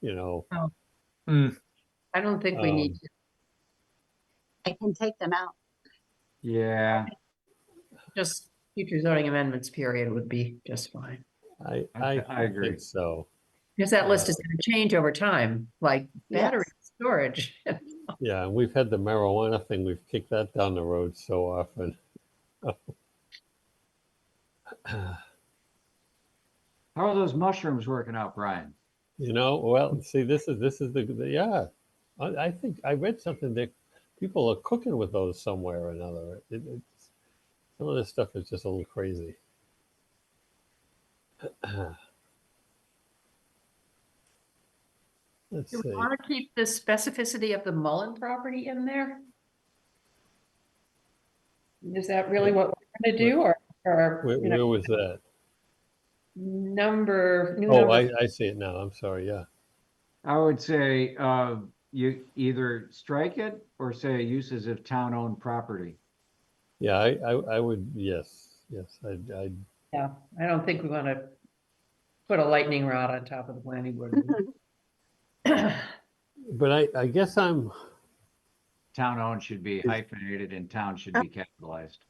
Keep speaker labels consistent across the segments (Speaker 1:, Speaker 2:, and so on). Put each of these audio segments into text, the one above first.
Speaker 1: you know.
Speaker 2: I don't think we need
Speaker 1: Um,
Speaker 2: to.
Speaker 3: I can take them out.
Speaker 4: Yeah,
Speaker 2: Just future zoning amendments period would be just fine.
Speaker 1: I,
Speaker 4: I-
Speaker 1: I,
Speaker 4: I agree.
Speaker 1: think so.
Speaker 2: Because that list is going to change over time, like battery storage.
Speaker 1: Yeah, and we've had the marijuana thing, we've kicked that down the road so often.
Speaker 4: how are those mushrooms working out, Brian?
Speaker 1: You know, well, see, this is, this is the, the- yeah. I, I think, I read something that people are cooking with those somewhere or another. It, it's, some of this stuff is just a little crazy. Let's
Speaker 2: Do we
Speaker 1: see.
Speaker 2: want to keep the specificity of the Mullen property in there? Is that really what we're going to do or, or,
Speaker 1: Where,
Speaker 2: you
Speaker 1: where
Speaker 2: know,
Speaker 1: was that?
Speaker 2: number? new
Speaker 1: Oh,
Speaker 2: number-
Speaker 1: I, I see it now. I'm sorry. Yeah.
Speaker 4: I would say, uh, you either strike it or say uses of town-owned property.
Speaker 1: Yeah, I, I, I would, yes, yes, I'd, I'd,
Speaker 2: Yeah, I don't think we want to put a lightning rod on top of the planning board.
Speaker 1: but I, I guess I'm,
Speaker 4: Town-owned should be hyphenated and town should be capitalized.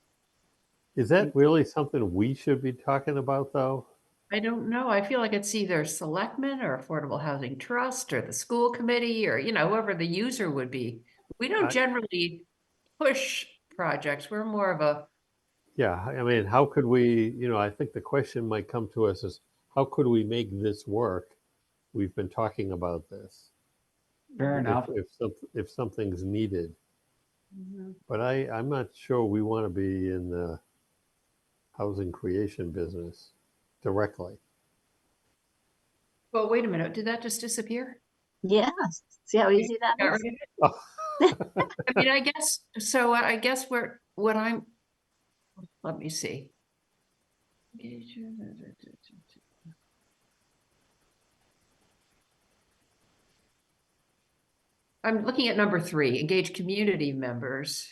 Speaker 1: is that really something we should be talking about though?
Speaker 2: I don't know. I feel like it's either selectmen or Affordable Housing Trust or the school committee or, you know, whoever the user would be. We
Speaker 1: I-
Speaker 2: don't generally push projects. We're more of a,
Speaker 1: Yeah, I mean, how could we, you know, I think the question might come to us is, how could we make this work? We've been talking about this.
Speaker 4: Fair
Speaker 1: If-
Speaker 4: enough.
Speaker 1: If, some- if something's needed, but I, I'm not sure we want to be in the housing creation business directly.
Speaker 2: well, wait a minute, did that just disappear?
Speaker 3: Yes, see how easy that
Speaker 2: Got
Speaker 3: is?
Speaker 2: rid of it? I mean, I guess, so I I guess where, what I'm, let me see. I'm looking at number three, engage community members.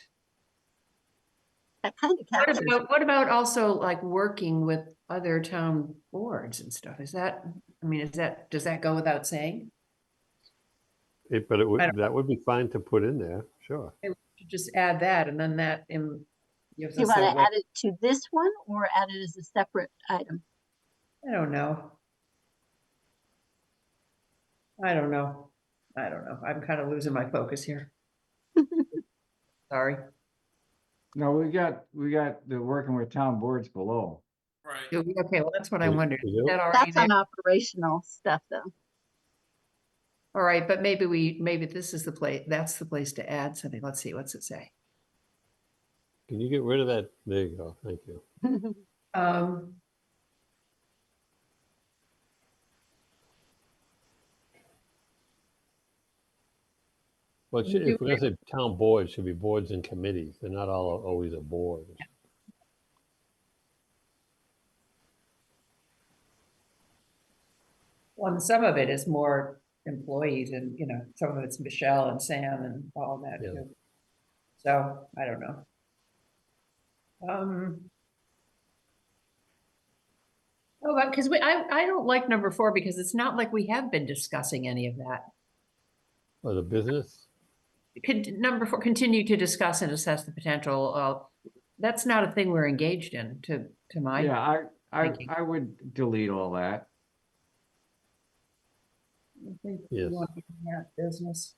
Speaker 3: That kind of
Speaker 2: What
Speaker 3: captures.
Speaker 2: about, what about also like working with other town boards and stuff? Is that, I mean, is that, does that go without saying?
Speaker 1: It, but it would,
Speaker 2: I don't-
Speaker 1: that would be fine to put in there, sure.
Speaker 2: Should Just add that and then that in. gives
Speaker 3: Do you
Speaker 2: us
Speaker 3: want
Speaker 2: that
Speaker 3: to
Speaker 2: way-
Speaker 3: add it to this one or add it as a separate item?
Speaker 2: I don't know. I don't know. I don't know. I'm kind of losing my focus here. Sorry.
Speaker 4: No, we got, we got the working with town boards below.
Speaker 2: Do we- Okay, well, that's what I
Speaker 1: We-
Speaker 2: wondered.
Speaker 1: we
Speaker 2: Is
Speaker 1: do?
Speaker 2: that already
Speaker 3: That's
Speaker 2: there?
Speaker 3: on operational stuff, though.
Speaker 2: All right, but maybe we, maybe this is the place, that's the place to add something. Let's see, what's it say?
Speaker 1: Can you get rid of that? There you go. Thank you.
Speaker 2: Um.
Speaker 1: Well, it should-
Speaker 2: Do
Speaker 1: if we're gonna say town boards, should be boards and committees. They're not all always a board.
Speaker 2: Well, and some of it is more employees and, you know, some of it's Michelle and Sam and all that
Speaker 1: Yeah.
Speaker 2: too. So I don't know. Um. Oh, but because we, I, I don't like number four because it's not like we have been discussing any of that.
Speaker 1: Or the business?
Speaker 2: Could, number four, continue to discuss and assess the potential of, that's not a thing we're engaged in to, to
Speaker 4: Yeah,
Speaker 2: my.
Speaker 4: I, I,
Speaker 2: thinking.
Speaker 4: I would delete all that.
Speaker 2: I think we
Speaker 1: Yes.
Speaker 2: want to have Business.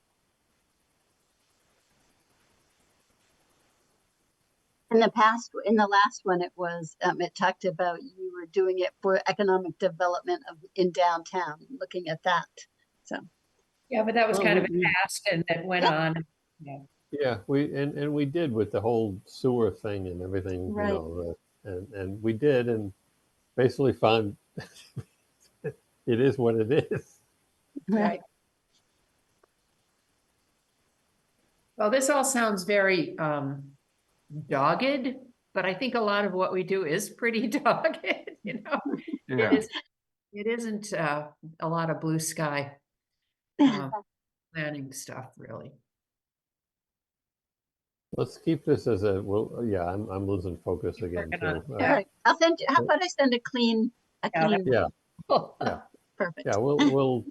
Speaker 3: In the past, in the last one, it was, um, it talked about you were doing it for economic development of, in downtown, looking at that.
Speaker 2: Yeah, but that was
Speaker 1: Well,
Speaker 2: kind of
Speaker 1: we- we-
Speaker 2: past and that went
Speaker 3: Yeah.
Speaker 2: on.
Speaker 1: Yeah, we, and, and we did with the whole sewer thing and everything, you
Speaker 3: Right.
Speaker 1: know, the- and, and we did and basically found it is what it is.
Speaker 2: Right. Well, this all sounds very um dogged, but I think a lot of what we do is pretty dogged, you know? It
Speaker 4: Yeah,
Speaker 2: is- it isn't uh a lot of blue sky um, planning stuff, really.
Speaker 1: Let's keep this as a, well, yeah, I'm, I'm losing focus
Speaker 2: Keep
Speaker 1: again
Speaker 2: working on
Speaker 1: too. All
Speaker 3: All
Speaker 1: right.
Speaker 3: right, I'll send you, how
Speaker 1: Yeah.
Speaker 3: about I send a clean, a
Speaker 2: Yeah, that-
Speaker 3: clean,
Speaker 1: Yeah,
Speaker 3: perfect.
Speaker 1: yeah, we'll, we'll,